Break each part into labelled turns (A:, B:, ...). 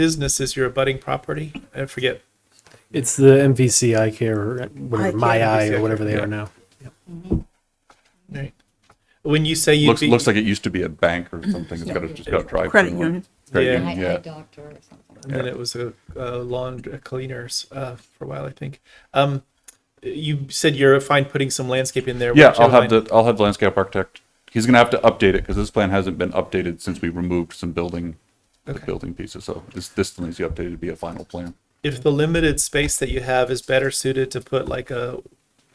A: business is your abutting property? I forget.
B: It's the MVC eye care or whatever,
C: Eye
B: my
C: care.
B: eye
A: Yeah.
B: or whatever they
D: Yeah.
B: are now.
A: Right. When you say you'd
D: Looks,
A: be,
D: looks like it used to be a bank or something. It's got a, just got a drive.
C: Credit union.
D: Credit
A: Mm-hmm. Yeah.
D: union,
E: Eye- eye
D: yeah.
E: doctor or something.
A: and then it was a, a lawn a cleaners uh, for a while, I think. Um, you said you're fine putting some landscape in there.
D: Yeah,
A: which I
D: I'll have
A: would-
D: the, I'll have the landscape architect. He's gonna have to update it because this plan hasn't been updated since we removed some building, the
A: Okay.
D: building pieces. So this, this still needs to be updated to be a final plan.
A: If the limited space that you have is better suited to put like a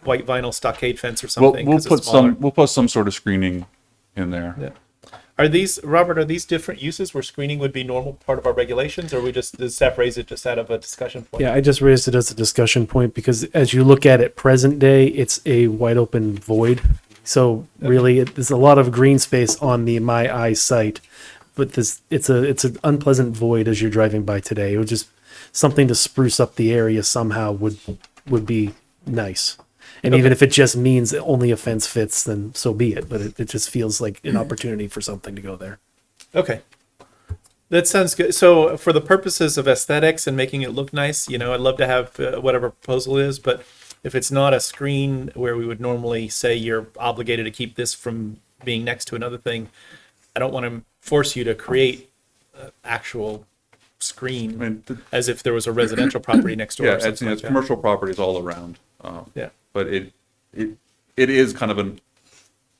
A: white vinyl stockade fence or
D: We'll,
A: something,
D: we'll
A: 'cause it's
D: put
A: smaller.
D: some, we'll put some sort of screening in there.
A: Yeah. Are these, Robert, are these different uses where screening would be normal part of our regulations, or we just, does staff raise it just out of a discussion point?
B: Yeah, I just raised it as a discussion point because as you look at it present day, it's a wide open void. So really, it, there's a lot of green space on the my eye site, but this it's a it's an unpleasant void as you're driving by today. It would just something to spruce up the area somehow would would be nice. And even if it just means only a fence fits, then so be it. But it, it just feels like an opportunity for something to go there.
A: Okay. That sounds good. So, for the purposes of aesthetics and making it look nice, you know, I'd love to have uh, whatever proposal is, but if it's not a screen where we would normally say you're obligated to keep this from being next to another thing, I don't want to force you to create uh, actual screen
D: I mean, th-
A: as if there was a residential property next door.
D: Yeah,
A: or
D: it's,
A: something like
D: it's
A: that.
D: commercial properties all around. uh,
A: Yeah.
D: But it, it, it is kind of an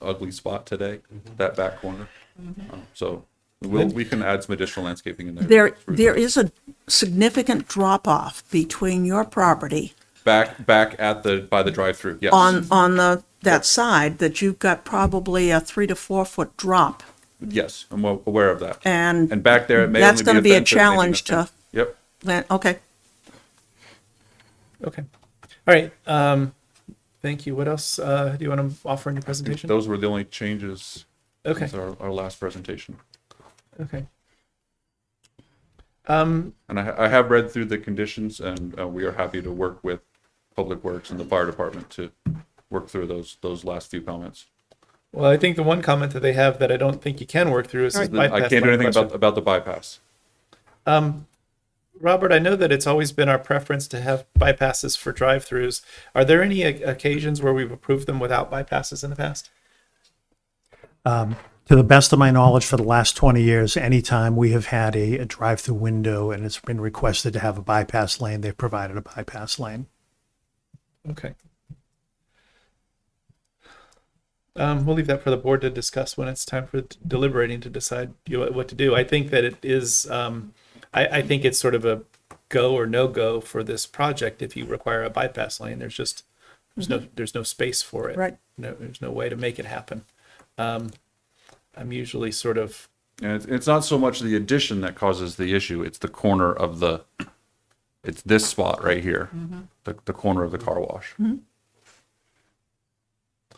D: ugly spot today, that back corner.
C: Mm-hmm.
D: Uh, So we'll, we can add some additional landscaping in there.
C: There,
D: through
C: there is a significant drop off between your property
D: Back, back at the, by the drive-through, yes.
C: on, on the, that side that you've got probably a three to four foot drop.
D: Yes, I'm aw- aware of that.
C: And
D: And back there, it may
C: that's
D: only
C: gonna be a
D: fence, it may be
C: challenge to-
D: nothing. Yep.
C: then, okay,
A: Okay. All right. Um, thank you. What else uh, do you want to offer in your presentation?
D: Those were the only changes.
A: Okay.
D: since Our, our last presentation.
A: Okay. Um,
D: And I, ha- I have read through the conditions and uh, we are happy to work with Public Works and the fire department to work through those, those last few comments.
A: well, I think the one comment that they have that I don't think you can work through is this bypass
D: I can't
A: line
D: do anything
A: question.
D: about, about the bypass.
A: Um, Robert, I know that it's always been our preference to have bypasses for drive-throughs. Are there any o- occasions where we've approved them without bypasses in the past?
F: To the best of my knowledge, for the last 20 years, anytime we have had a, a drive-through window and it's been requested to have a bypass lane, they've provided a bypass lane.
A: Okay. Um, we'll leave that for the board to discuss when it's time for deliberating to decide you know, what to do. I think that it is, um, I, I think it's sort of a go or no go for this project if you require a bypass lane. There's just, there's no, there's no space for it.
C: Right.
A: No, there's no way to make it happen. Um, I'm usually sort of,
D: And it's, it's not so much the addition that causes the issue, it's the corner of the, it's this spot right here, the, the corner of the car wash.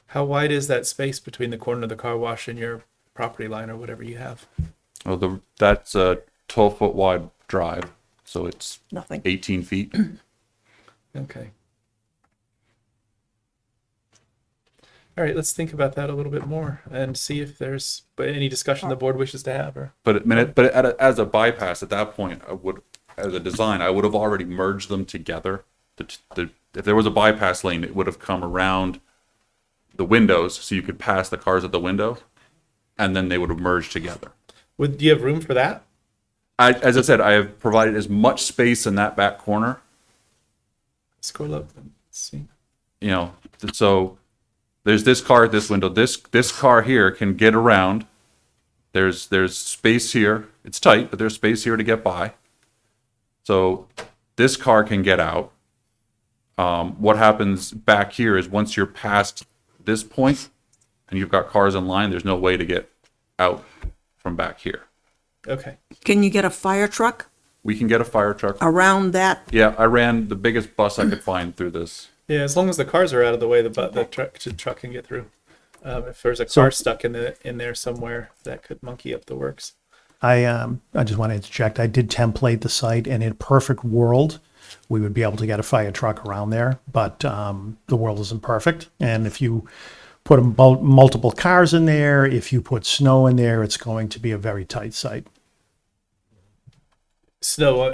A: how wide is that space between the corner of the car wash and your property line or whatever you have?
D: Oh, the, that's a twelve foot wide drive, so it's
C: nothing.
D: eighteen feet.
A: Okay. All right, let's think about that a little bit more and see if there's but any discussion the board wishes to have or,
D: But it, minute- but at a, as a bypass at that point, I would, as a design, I would have already merged them together. The, t- the, if there was a bypass lane, it would have come around the windows, so you could pass the cars at the window, and then they would have merged together.
A: would, do you have room for that?
D: I, as I said, I have provided as much space in that back corner,
A: Scroll up and see.
D: you know, th- so there's this car at this window. This this car here can get around. There's there's space here. It's tight, but there's space here to get by. So this car can get out. Um, what happens back here is once you're past this point and you've got cars in line, there's no way to get out from back here.
A: Okay,
C: Can you get a fire truck
D: We can get a fire truck.
C: around that?
D: Yeah, I ran the biggest bus I could find through this.
A: yeah, as long as the cars are out of the way, the bu- the truck, the truck can get through. Um, if there's a car stuck in the, in there somewhere, that could monkey up the works.
F: I, um, I just want to interject, I did template the site and in a perfect world, we would be able to get a fire truck around there, but, um, the world isn't perfect. And if you put a mul- multiple cars in there, if you put snow in there, it's going to be a very tight site.
A: snow